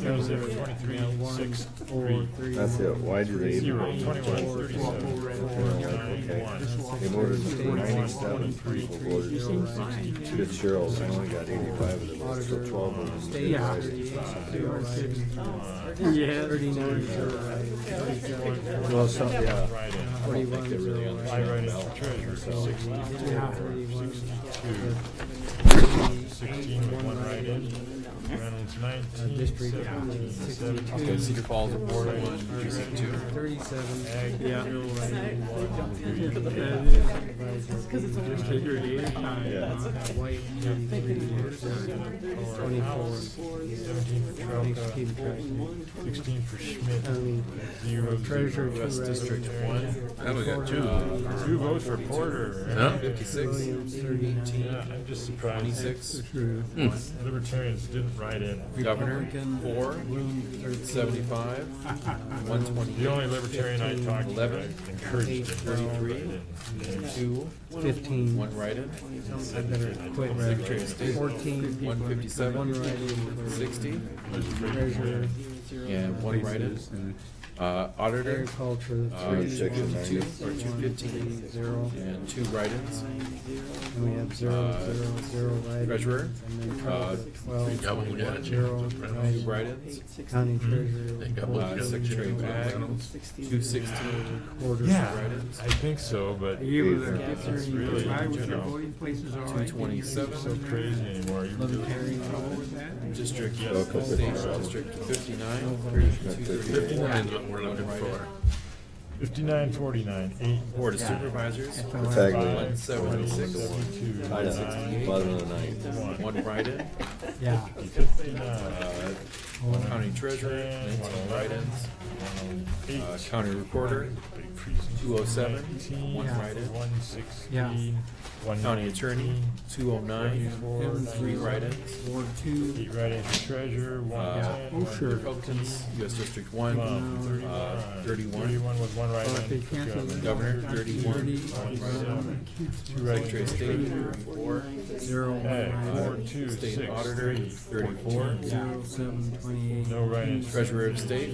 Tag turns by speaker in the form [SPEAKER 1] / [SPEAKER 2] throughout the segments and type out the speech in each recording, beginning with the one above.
[SPEAKER 1] Zero, zero, twenty-three, six, three.
[SPEAKER 2] That's it, wide range.
[SPEAKER 1] Zero,
[SPEAKER 2] of
[SPEAKER 1] twenty-one,
[SPEAKER 2] potential
[SPEAKER 1] thirty-seven,
[SPEAKER 2] storms.
[SPEAKER 1] nine, one.
[SPEAKER 2] In order to ninety-seven people voted to get Cheryl's, I only got eighty-five of them, so twelve of them. did
[SPEAKER 3] Yeah.
[SPEAKER 2] rise.
[SPEAKER 3] Yes.
[SPEAKER 2] Well, some, yeah.
[SPEAKER 1] Write-in.
[SPEAKER 2] I don't think they really
[SPEAKER 1] I write
[SPEAKER 2] understand
[SPEAKER 1] in for
[SPEAKER 2] the ballot.
[SPEAKER 1] treasurer, sixty-four, sixty-two, sixteen with one write-in. Reynolds nineteen, seventeen,
[SPEAKER 4] Okay,
[SPEAKER 1] seventeen.
[SPEAKER 4] Cedar Falls at Ward one, precinct two.
[SPEAKER 3] Thirty-seven.
[SPEAKER 1] Ag,
[SPEAKER 3] Yeah.
[SPEAKER 1] Hill, write-in, one, three.
[SPEAKER 3] Just take your eight time.
[SPEAKER 2] Yeah.
[SPEAKER 3] White, thirty-three, twenty-four.
[SPEAKER 1] Seventeen for Trelka,
[SPEAKER 3] Keep track.
[SPEAKER 1] sixteen for Schmidt,
[SPEAKER 3] I mean,
[SPEAKER 1] zero,
[SPEAKER 3] treasurer,
[SPEAKER 1] zero.
[SPEAKER 3] two residents.
[SPEAKER 1] One.
[SPEAKER 4] I only got two.
[SPEAKER 1] Two votes for Porter.
[SPEAKER 4] Huh? Fifty-six,
[SPEAKER 3] Williams, thirty-eight.
[SPEAKER 1] Yeah, I'm just surprised.
[SPEAKER 4] twenty-six.
[SPEAKER 3] True.
[SPEAKER 1] Libertarians didn't write in.
[SPEAKER 4] Governor, four, seventy-five, one
[SPEAKER 1] The
[SPEAKER 4] twenty-eight,
[SPEAKER 1] only libertarian I talked to I
[SPEAKER 4] Eleven.
[SPEAKER 1] encouraged it.
[SPEAKER 4] Thirty-three. two,
[SPEAKER 3] Fifteen.
[SPEAKER 4] one write-in,
[SPEAKER 3] I better quit.
[SPEAKER 4] Secretary of State,
[SPEAKER 3] Fourteen.
[SPEAKER 4] one
[SPEAKER 3] One
[SPEAKER 4] fifty-seven,
[SPEAKER 3] write-in.
[SPEAKER 4] sixty,
[SPEAKER 3] Treasurer,
[SPEAKER 4] and one write-in. Uh, auditor,
[SPEAKER 3] agriculture,
[SPEAKER 4] uh,
[SPEAKER 3] three.
[SPEAKER 2] Section
[SPEAKER 4] two, or
[SPEAKER 2] ninety.
[SPEAKER 4] two fifteen,
[SPEAKER 3] Zero.
[SPEAKER 4] and two write-ins.
[SPEAKER 3] And we have zero,
[SPEAKER 4] Uh,
[SPEAKER 3] zero, zero write-in.
[SPEAKER 4] Treasurer,
[SPEAKER 3] And then
[SPEAKER 4] uh,
[SPEAKER 3] Twelve.
[SPEAKER 5] Double that.
[SPEAKER 3] Zero.
[SPEAKER 4] two
[SPEAKER 3] write-in.
[SPEAKER 4] write-ins,
[SPEAKER 3] County treasurer.
[SPEAKER 5] They got
[SPEAKER 4] uh, Secretary of Ag, two sixteen,
[SPEAKER 3] Quarter.
[SPEAKER 1] Yeah, I think so, but it's
[SPEAKER 3] You were
[SPEAKER 2] It's
[SPEAKER 3] considering
[SPEAKER 1] really,
[SPEAKER 3] if I was
[SPEAKER 1] you
[SPEAKER 3] your
[SPEAKER 1] know.
[SPEAKER 3] voting places are
[SPEAKER 4] two
[SPEAKER 3] right.
[SPEAKER 1] so
[SPEAKER 4] twenty-seven,
[SPEAKER 1] crazy anymore. You really-
[SPEAKER 4] Uh, District,
[SPEAKER 1] Yes.
[SPEAKER 4] state, District fifty-nine, thirty-two, thirty-four,
[SPEAKER 5] Depends what we're looking for.
[SPEAKER 1] Fifty-nine, forty-nine, eight.
[SPEAKER 4] Board of Supervisors,
[SPEAKER 2] It's ugly.
[SPEAKER 4] one seventy-six,
[SPEAKER 1] Seventy-two.
[SPEAKER 2] I know, bottom of the ninth.
[SPEAKER 1] One.
[SPEAKER 4] one write-in,
[SPEAKER 3] Yeah.
[SPEAKER 1] Fifty-nine.
[SPEAKER 4] uh, one county treasurer, nineteen write-ins, uh,
[SPEAKER 1] Eight.
[SPEAKER 4] county recorder,
[SPEAKER 1] Big precinct.
[SPEAKER 4] 207,
[SPEAKER 1] Nineteen,
[SPEAKER 4] one
[SPEAKER 3] Yeah.
[SPEAKER 4] write-in,
[SPEAKER 1] One sixteen.
[SPEAKER 3] Yeah.
[SPEAKER 1] One.
[SPEAKER 4] county attorney,
[SPEAKER 1] nineteen,
[SPEAKER 4] two oh nine, three write-ins,
[SPEAKER 3] Ward two.
[SPEAKER 1] Eight write-ins for treasurer, one
[SPEAKER 4] Uh,
[SPEAKER 1] ten.
[SPEAKER 3] oh,
[SPEAKER 1] one
[SPEAKER 3] sure.
[SPEAKER 4] Republicans, US District one,
[SPEAKER 1] Twelve,
[SPEAKER 4] uh, thirty-one,
[SPEAKER 1] Thirty-one with one
[SPEAKER 3] Well,
[SPEAKER 1] write-in.
[SPEAKER 3] if they
[SPEAKER 1] for
[SPEAKER 3] cancel
[SPEAKER 1] governor.
[SPEAKER 3] the
[SPEAKER 4] Governor,
[SPEAKER 3] Thirty.
[SPEAKER 4] thirty-one, one write-in,
[SPEAKER 1] Two
[SPEAKER 4] Secretary
[SPEAKER 1] write-ins
[SPEAKER 4] of
[SPEAKER 1] for
[SPEAKER 4] State,
[SPEAKER 1] treasurer.
[SPEAKER 4] thirty-four,
[SPEAKER 3] Zero.
[SPEAKER 1] Ag,
[SPEAKER 3] one
[SPEAKER 1] four,
[SPEAKER 3] write-in.
[SPEAKER 1] two,
[SPEAKER 4] State
[SPEAKER 1] six,
[SPEAKER 4] auditor,
[SPEAKER 1] three, forty-four.
[SPEAKER 4] 34.
[SPEAKER 3] Zero, seven, twenty-eight.
[SPEAKER 1] No write-ins.
[SPEAKER 4] treasurer of state,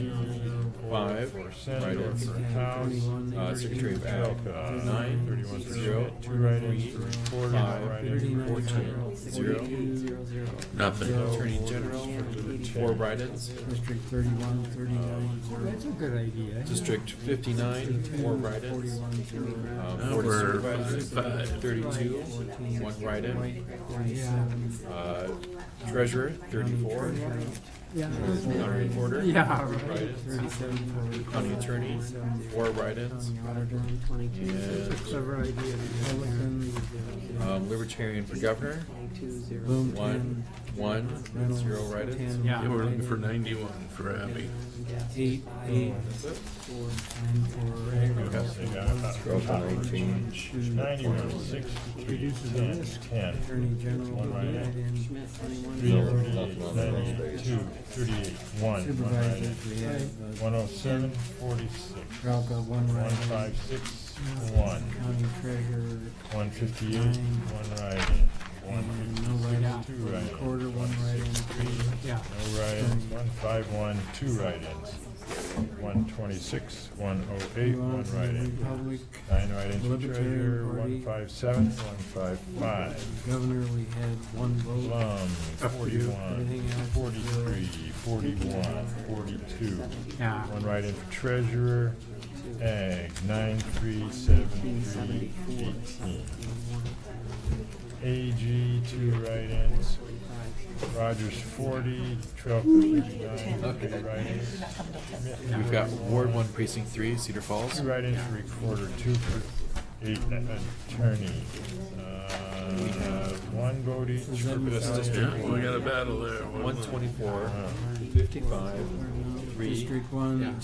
[SPEAKER 4] five,
[SPEAKER 1] For Senator,
[SPEAKER 4] write-ins,
[SPEAKER 1] for
[SPEAKER 3] Fifteen,
[SPEAKER 1] House.
[SPEAKER 3] twenty-one,
[SPEAKER 4] uh,
[SPEAKER 3] thirty.
[SPEAKER 4] Secretary of Ag,
[SPEAKER 1] Elka,
[SPEAKER 4] nine,
[SPEAKER 1] thirty-one for
[SPEAKER 4] zero,
[SPEAKER 1] Schmidt, two write-ins
[SPEAKER 4] three,
[SPEAKER 1] for Porter,
[SPEAKER 4] five,
[SPEAKER 1] no write-ins
[SPEAKER 3] Thirty-nine,
[SPEAKER 1] for
[SPEAKER 4] fourteen, zero,
[SPEAKER 3] forty-two, zero, zero.
[SPEAKER 5] Nothing.
[SPEAKER 4] Attorney General, four write-ins,
[SPEAKER 3] District thirty-one,
[SPEAKER 4] Uh,
[SPEAKER 3] thirty-nine, zero. That's a good idea.
[SPEAKER 4] District fifty-nine, four write-ins,
[SPEAKER 3] Forty-one, zero.
[SPEAKER 4] uh,
[SPEAKER 5] Now
[SPEAKER 4] Board of
[SPEAKER 5] we're
[SPEAKER 4] Supervisors,
[SPEAKER 5] five.
[SPEAKER 4] thirty-two, one write-in,
[SPEAKER 3] White, forty-seven.
[SPEAKER 4] uh, treasurer, thirty-four,
[SPEAKER 3] Yeah.
[SPEAKER 4] county recorder,
[SPEAKER 3] Yeah, right.
[SPEAKER 4] write-ins,
[SPEAKER 3] Thirty-seven, forty.
[SPEAKER 4] county attorney, four write-ins,
[SPEAKER 3] Auditor,
[SPEAKER 4] and
[SPEAKER 3] Clever idea. Republican,
[SPEAKER 4] um, libertarian for governor,
[SPEAKER 3] Bloom,
[SPEAKER 4] one,
[SPEAKER 3] ten.
[SPEAKER 4] one,
[SPEAKER 3] Reynolds,
[SPEAKER 4] zero write-ins.
[SPEAKER 3] ten.
[SPEAKER 5] They were looking for ninety-one for Abby.
[SPEAKER 3] Eight, eight.
[SPEAKER 1] Yes, they got about
[SPEAKER 2] Twelve to nineteen.
[SPEAKER 1] Ninety-one, sixty-three, ten, ten.
[SPEAKER 3] Attorney General.
[SPEAKER 1] One write-in.
[SPEAKER 3] write-in.
[SPEAKER 1] Three,
[SPEAKER 2] No,
[SPEAKER 1] thirty-eight,
[SPEAKER 2] nothing on those days.
[SPEAKER 1] ninety-two, thirty-eight, one, one
[SPEAKER 3] Supervisors,
[SPEAKER 1] write-in.
[SPEAKER 3] we have, uh,
[SPEAKER 1] One oh seven, forty-six.
[SPEAKER 3] Ralka, one
[SPEAKER 1] One
[SPEAKER 3] write-in.
[SPEAKER 1] five six, one.
[SPEAKER 3] County treasurer,
[SPEAKER 1] One fifty-eight, one write-in. One
[SPEAKER 3] and no
[SPEAKER 1] fifty-six, two
[SPEAKER 3] write-in.
[SPEAKER 1] write-ins.
[SPEAKER 3] Quarter, one write-in, three. Yeah.
[SPEAKER 1] No write-ins, one five one, two write-ins. One twenty-six, one oh eight, one write-in.
[SPEAKER 3] Republic,
[SPEAKER 1] Nine write-ins for
[SPEAKER 3] Libertarian
[SPEAKER 1] treasurer,
[SPEAKER 3] Party.
[SPEAKER 1] one five seven, one five five.
[SPEAKER 3] governor, we had one vote.
[SPEAKER 1] Plum, forty-one, forty-three, forty-one, forty-two.
[SPEAKER 3] Yeah.
[SPEAKER 1] One write-in for treasurer, ag, nine, three, seven, three, eighteen. AG, two write-ins. Rogers, forty, Trump, thirty-nine, three
[SPEAKER 4] Okay.
[SPEAKER 1] write-ins.
[SPEAKER 4] We've got Ward one, precinct three, Cedar Falls,
[SPEAKER 1] Two write-ins for recorder, two for eight, attorney. Uh, one vote each for
[SPEAKER 4] US District
[SPEAKER 5] Yeah, we
[SPEAKER 4] one,
[SPEAKER 5] got a battle there.
[SPEAKER 4] one twenty-four,
[SPEAKER 1] Uh,
[SPEAKER 4] fifty-five, three,
[SPEAKER 3] District one,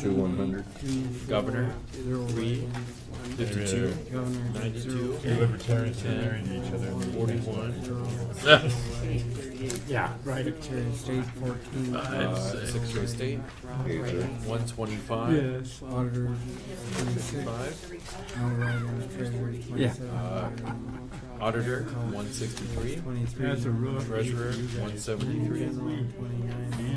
[SPEAKER 2] Two one hundred.
[SPEAKER 3] two.
[SPEAKER 4] Governor,
[SPEAKER 3] Zero
[SPEAKER 4] three,
[SPEAKER 3] write-in.
[SPEAKER 4] fifty-two,
[SPEAKER 3] Governor,
[SPEAKER 4] ninety-two,
[SPEAKER 1] Two libertarians are marrying each other.
[SPEAKER 4] forty-one,
[SPEAKER 3] Yeah, right up to state fourteen.
[SPEAKER 4] uh, Secretary of State,
[SPEAKER 2] Eighth.
[SPEAKER 4] one twenty-five,
[SPEAKER 3] Yes. Auditor, twenty-six,
[SPEAKER 4] five,
[SPEAKER 3] no write-in, treasurer, twenty-seven.
[SPEAKER 4] auditor, one sixty-three,
[SPEAKER 3] Twenty-three. That's a rough.
[SPEAKER 4] treasurer, one seventy-three,
[SPEAKER 3] General, twenty-nine.